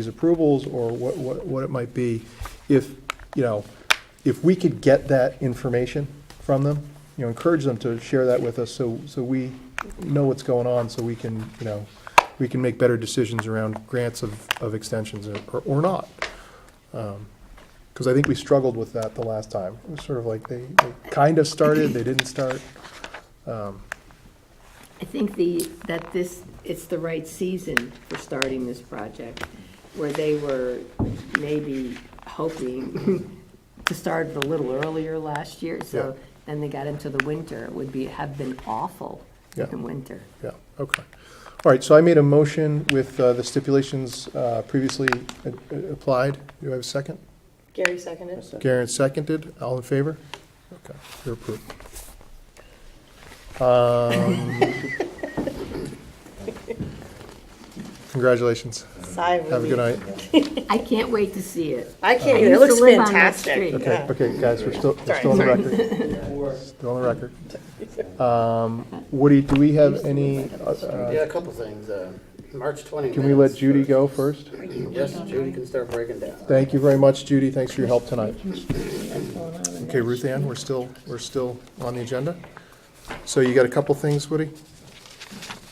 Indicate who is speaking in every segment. Speaker 1: these approvals or what, what, what it might be, if, you know, if we could get that information from them, you know, encourage them to share that with us so, so we know what's going on, so we can, you know, we can make better decisions around grants of, of extensions or, or not. Because I think we struggled with that the last time. It was sort of like they, they kind of started, they didn't start.
Speaker 2: I think the, that this, it's the right season for starting this project, where they were maybe hoping to start a little earlier last year, so
Speaker 1: Yeah.
Speaker 2: then they got into the winter, it would be, have been awful
Speaker 1: Yeah.
Speaker 2: in winter.
Speaker 1: Yeah, okay. All right, so I made a motion with uh, the stipulations uh, previously a- a- applied. Do I have a second?
Speaker 3: Gary seconded.
Speaker 1: Garen seconded. All in favor? Okay, you're approved. Um, Congratulations.
Speaker 3: Sigh of
Speaker 1: Have a good
Speaker 3: relief.
Speaker 1: night.
Speaker 2: I can't wait to see it.
Speaker 3: I can't
Speaker 2: I
Speaker 3: either. It
Speaker 2: used to
Speaker 3: looks
Speaker 2: live on that
Speaker 3: fantastic.
Speaker 2: street.
Speaker 1: Okay,
Speaker 3: Yeah.
Speaker 1: okay, guys, we're still, we're
Speaker 3: Sorry.
Speaker 1: still on the record. Still on the record. Um, Woody, do we have any, uh,
Speaker 4: Yeah, a couple things. Uh, March 20.
Speaker 1: can we let
Speaker 4: minutes
Speaker 1: Judy
Speaker 4: first.
Speaker 1: go first?
Speaker 4: Yes, Judy can start breaking down.
Speaker 1: Thank you very much, Judy. Thanks for your help tonight. Okay, Ruth Ann, we're still, we're still on the agenda. So you got a couple things, Woody?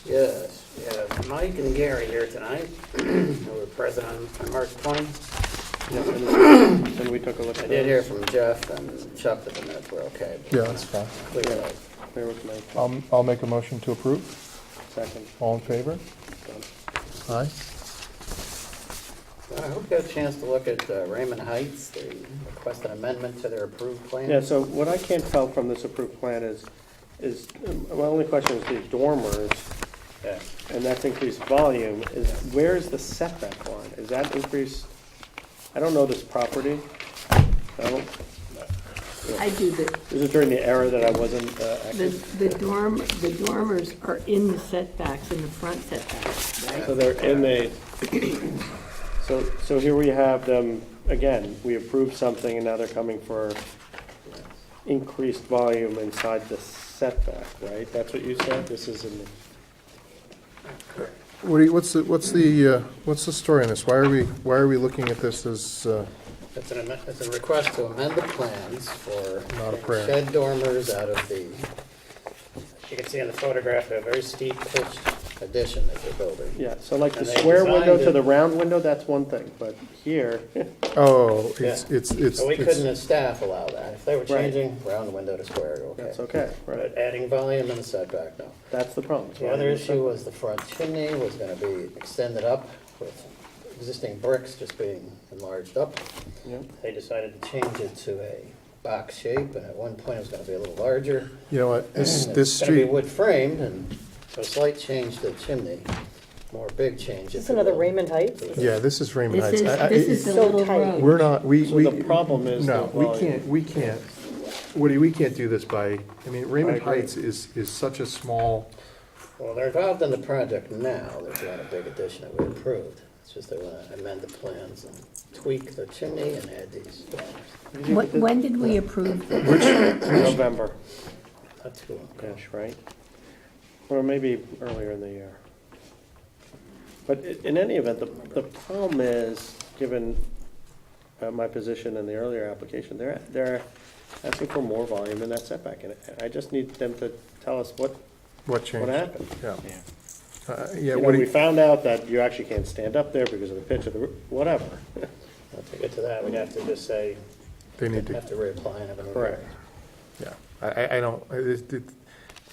Speaker 4: Yes, we have Mike and Gary here tonight. They were present on on March 20.
Speaker 5: Then we took a look
Speaker 4: I
Speaker 5: at
Speaker 4: did
Speaker 5: it.
Speaker 4: hear from Jeff and Chuck that the minutes were okay.
Speaker 1: Yeah, that's fine.
Speaker 4: Clear out.
Speaker 5: There was my
Speaker 1: I'll, I'll make a motion to approve.
Speaker 5: second.
Speaker 1: All in favor? Aye.
Speaker 4: I hope you had a chance to look at uh, Raymond Heights. They request an amendment to their approved plan.
Speaker 5: Yeah, so what I can't tell from this approved plan is, is, um, my only question is the dormers,
Speaker 4: Yeah.
Speaker 5: and that's increased volume, is where is the setback line? Is that increased? I don't know this property. I don't,
Speaker 2: I do, the,
Speaker 5: this is during the era that I wasn't uh,
Speaker 2: the
Speaker 5: active.
Speaker 2: the dorm, the dormers are in the setbacks, in the front setbacks, right?
Speaker 5: So they're in the, so, so here we have them, again, we approved something and now they're coming for increased volume inside the setback, right? That's what you said? This is in, the-
Speaker 1: Woody, what's the, what's the, uh, what's the story on this? Why are we, why are we looking at this as, uh,
Speaker 4: It's an amendment, it's a request to amend the plans for
Speaker 1: Not a prayer.
Speaker 4: shed dormers out of the, you can see in the photograph, they're very steep pitched addition that they're building.
Speaker 5: yeah, so like the
Speaker 4: And they
Speaker 5: square window
Speaker 4: designed
Speaker 5: to
Speaker 4: it-
Speaker 5: the round window, that's one thing, but here,
Speaker 1: oh, it's,
Speaker 4: Yeah.
Speaker 1: it's, it's.
Speaker 4: So we
Speaker 1: it's-
Speaker 4: couldn't as staff allow that. If they were
Speaker 5: Right.
Speaker 4: changing round window to square, okay.
Speaker 5: that's okay, right?
Speaker 4: But adding volume and setback, no.
Speaker 5: That's the problem. it's
Speaker 4: The
Speaker 5: right
Speaker 4: other
Speaker 5: in the
Speaker 4: issue was the front chimney was gonna be extended up with existing bricks just being enlarged up.
Speaker 5: setback. Yep.
Speaker 4: They decided to change it to a box shape, and at one point it was gonna be a little larger.
Speaker 1: You know what, this, this
Speaker 4: It's gonna
Speaker 1: street,
Speaker 4: be wood framed, and a slight change to the chimney, more big change.
Speaker 3: Is this another Raymond Heights?
Speaker 1: yeah, this is Raymond Heights.
Speaker 2: This is,
Speaker 1: I- I-
Speaker 2: this is the
Speaker 1: it's-
Speaker 3: So
Speaker 2: little
Speaker 3: tight.
Speaker 2: road.
Speaker 1: We're not, we,
Speaker 5: So
Speaker 1: we.
Speaker 5: the problem is the
Speaker 1: No, we
Speaker 5: volume.
Speaker 1: can't, we can't, Woody, we can't do this by, I mean, Raymond
Speaker 5: agree.
Speaker 1: Heights is, is such a small,
Speaker 4: Well, they're involved in the project now, there's not a big addition that we approved. It's just they wanna amend the plans and tweak the chimney and add these.
Speaker 2: When when did we approve this?
Speaker 5: November,
Speaker 4: That's cool.
Speaker 5: gosh, right? Or maybe earlier in the year. But i- in any event, the, the problem is, given uh, my position in the earlier application, they're, they're asking for more volume in that setback. And I just need them to tell us what,
Speaker 1: what
Speaker 5: what
Speaker 1: changed?
Speaker 5: happened.
Speaker 1: Yeah. Uh, Yeah,
Speaker 5: You know, we
Speaker 1: Woody,
Speaker 5: found out that you actually can't stand up there because of the pitch of the, roo- whatever.
Speaker 4: Once we get to that, we'd have to just say,
Speaker 1: they need to,
Speaker 4: have to reapply and have another.
Speaker 5: Correct.
Speaker 1: yeah, I- I, I don't, I- it- it-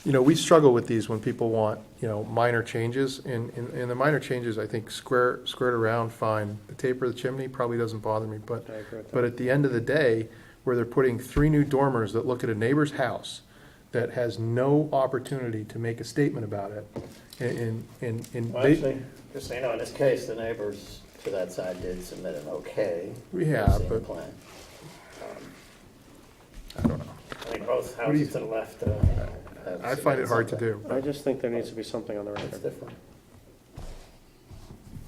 Speaker 1: you know, we struggle with these when people want, you know, minor changes, and, and and the minor changes, I think, square, squared around, fine. The taper of the chimney probably doesn't bother me, but,
Speaker 5: I agree with that.
Speaker 1: but at the end of the day, where they're putting three new dormers that look at a neighbor's house that has no opportunity to make a statement about it, and, and- and, and.
Speaker 4: Well,
Speaker 1: they-
Speaker 4: actually, just so you know, in this case, the neighbors to that side did submit an okay.
Speaker 1: Yeah,
Speaker 4: Same
Speaker 1: but-
Speaker 4: plan.
Speaker 1: I don't know.
Speaker 4: I think both
Speaker 1: do you-
Speaker 4: houses to the left. uh, have
Speaker 1: I find it hard to do.
Speaker 5: I just think there needs to be something on the
Speaker 4: It's
Speaker 5: record.
Speaker 4: different.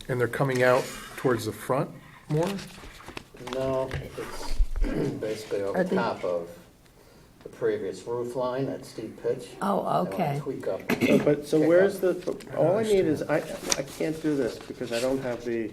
Speaker 1: And they're coming out towards the front more?
Speaker 4: No, it's basically over
Speaker 2: Are they-
Speaker 4: top of the previous roof line, that steep pitch.
Speaker 2: Oh,
Speaker 4: They wanna
Speaker 2: okay.
Speaker 4: Tweak up.
Speaker 5: But, so where's the, all I need is, I, I can't do this because I don't have the